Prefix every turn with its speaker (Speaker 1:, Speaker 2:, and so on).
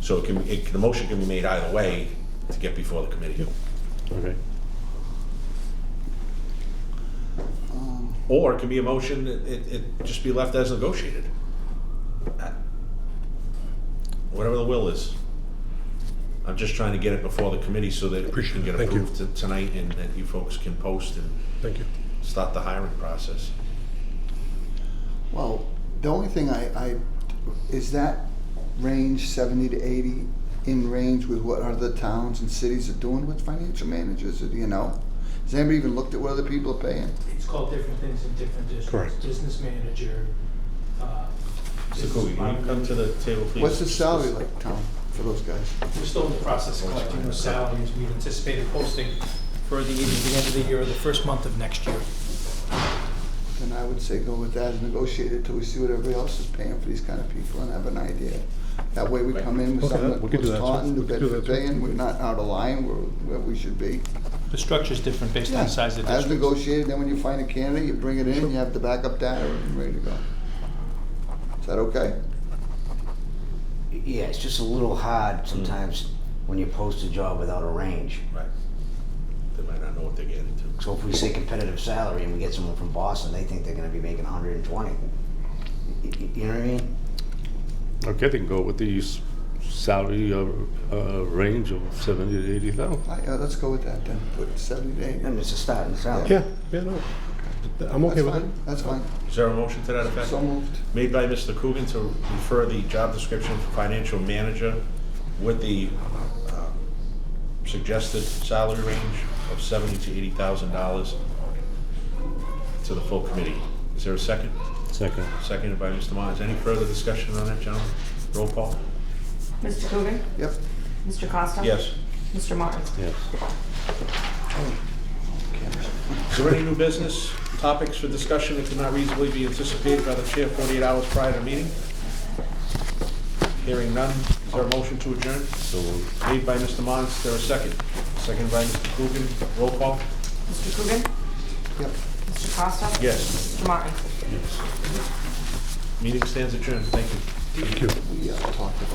Speaker 1: So it can, it, the motion can be made either way to get before the committee.
Speaker 2: Okay.
Speaker 1: Or it can be a motion, it, it it just be left as negotiated. Whatever the will is. I'm just trying to get it before the committee so that it
Speaker 3: Appreciate
Speaker 1: can
Speaker 3: it.
Speaker 1: get
Speaker 3: Thank you.
Speaker 1: approved to- tonight and that you folks can post and
Speaker 3: Thank you.
Speaker 1: start the hiring process.
Speaker 4: Well, the only thing I, I, is that range seventy to eighty in range with what other towns and cities are doing with financial managers, do you know? Has anybody even looked at what other people are paying?
Speaker 5: It's called different things in different districts.
Speaker 2: Correct.
Speaker 5: Business manager, uh.
Speaker 1: Mr.
Speaker 5: business
Speaker 1: Coogan, can you
Speaker 5: partner.
Speaker 1: come to the table, please?
Speaker 4: What's the salary like, Tom, for those guys?
Speaker 5: We're still in the process of collecting those salaries. We've anticipated posting for the, either the end of the year or the first month of next year.
Speaker 4: Then I would say go with that and negotiate it till we see what everybody else is paying for these kind of people and have an idea. That way we come in with
Speaker 3: Okay,
Speaker 4: something that
Speaker 3: we could do
Speaker 4: was
Speaker 3: that,
Speaker 4: taught in
Speaker 3: sir.
Speaker 4: New
Speaker 3: We could do
Speaker 4: Bedford
Speaker 3: that, sir.
Speaker 4: paying, we're not out of line, we're where we should be.
Speaker 5: The structure's different based on
Speaker 4: Yeah,
Speaker 5: the size of the
Speaker 4: As
Speaker 5: district.
Speaker 4: negotiated, then when you find a candidate, you bring it in, you have the backup data, and ready to go. Is that okay?
Speaker 6: Yeah, it's just a little hard sometimes when you post a job without a range.
Speaker 1: Right. They might not know what they're getting into.
Speaker 6: So if we say competitive salary and we get someone from Boston, they think they're gonna be making hundred and twenty. You know what I mean?
Speaker 2: Okay, they can go with the s- salary uh, uh, range of seventy to eighty thousand.
Speaker 4: All right, yeah, let's go with that then, put seventy to
Speaker 6: I
Speaker 4: eighty.
Speaker 6: mean, it's a starting salary.
Speaker 3: Yeah, yeah, no, I'm okay
Speaker 4: That's
Speaker 3: with it.
Speaker 4: fine, that's fine,
Speaker 1: Is there a motion to that effect?
Speaker 4: so moved.
Speaker 1: Made by Mr. Coogan to refer the job description for financial manager with the uh, suggested salary range of seventy to eighty thousand dollars to the full committee. Is there a second?
Speaker 2: Second.
Speaker 1: Seconded by Mr. Myers. Any further discussion on that, gentlemen? Roll call?
Speaker 7: Mr. Coogan?
Speaker 4: Yep,
Speaker 7: Mr. Costa?
Speaker 1: Yes.
Speaker 7: Mr. Martin?
Speaker 2: Yes.
Speaker 1: Is there any new business topics for discussion that could not reasonably be anticipated by the chair forty-eight hours prior to meeting? Hearing none, is there a motion to adjourn?
Speaker 2: So moved.
Speaker 1: Made by Mr. Mons, there a second? Second by Mr. Coogan, roll call?
Speaker 7: Mr. Coogan?
Speaker 4: yep.
Speaker 7: Mr. Costa?
Speaker 1: Yes.
Speaker 7: Mr. Martin?
Speaker 1: Meeting stands adjourned, thank you.
Speaker 4: We uh, talked about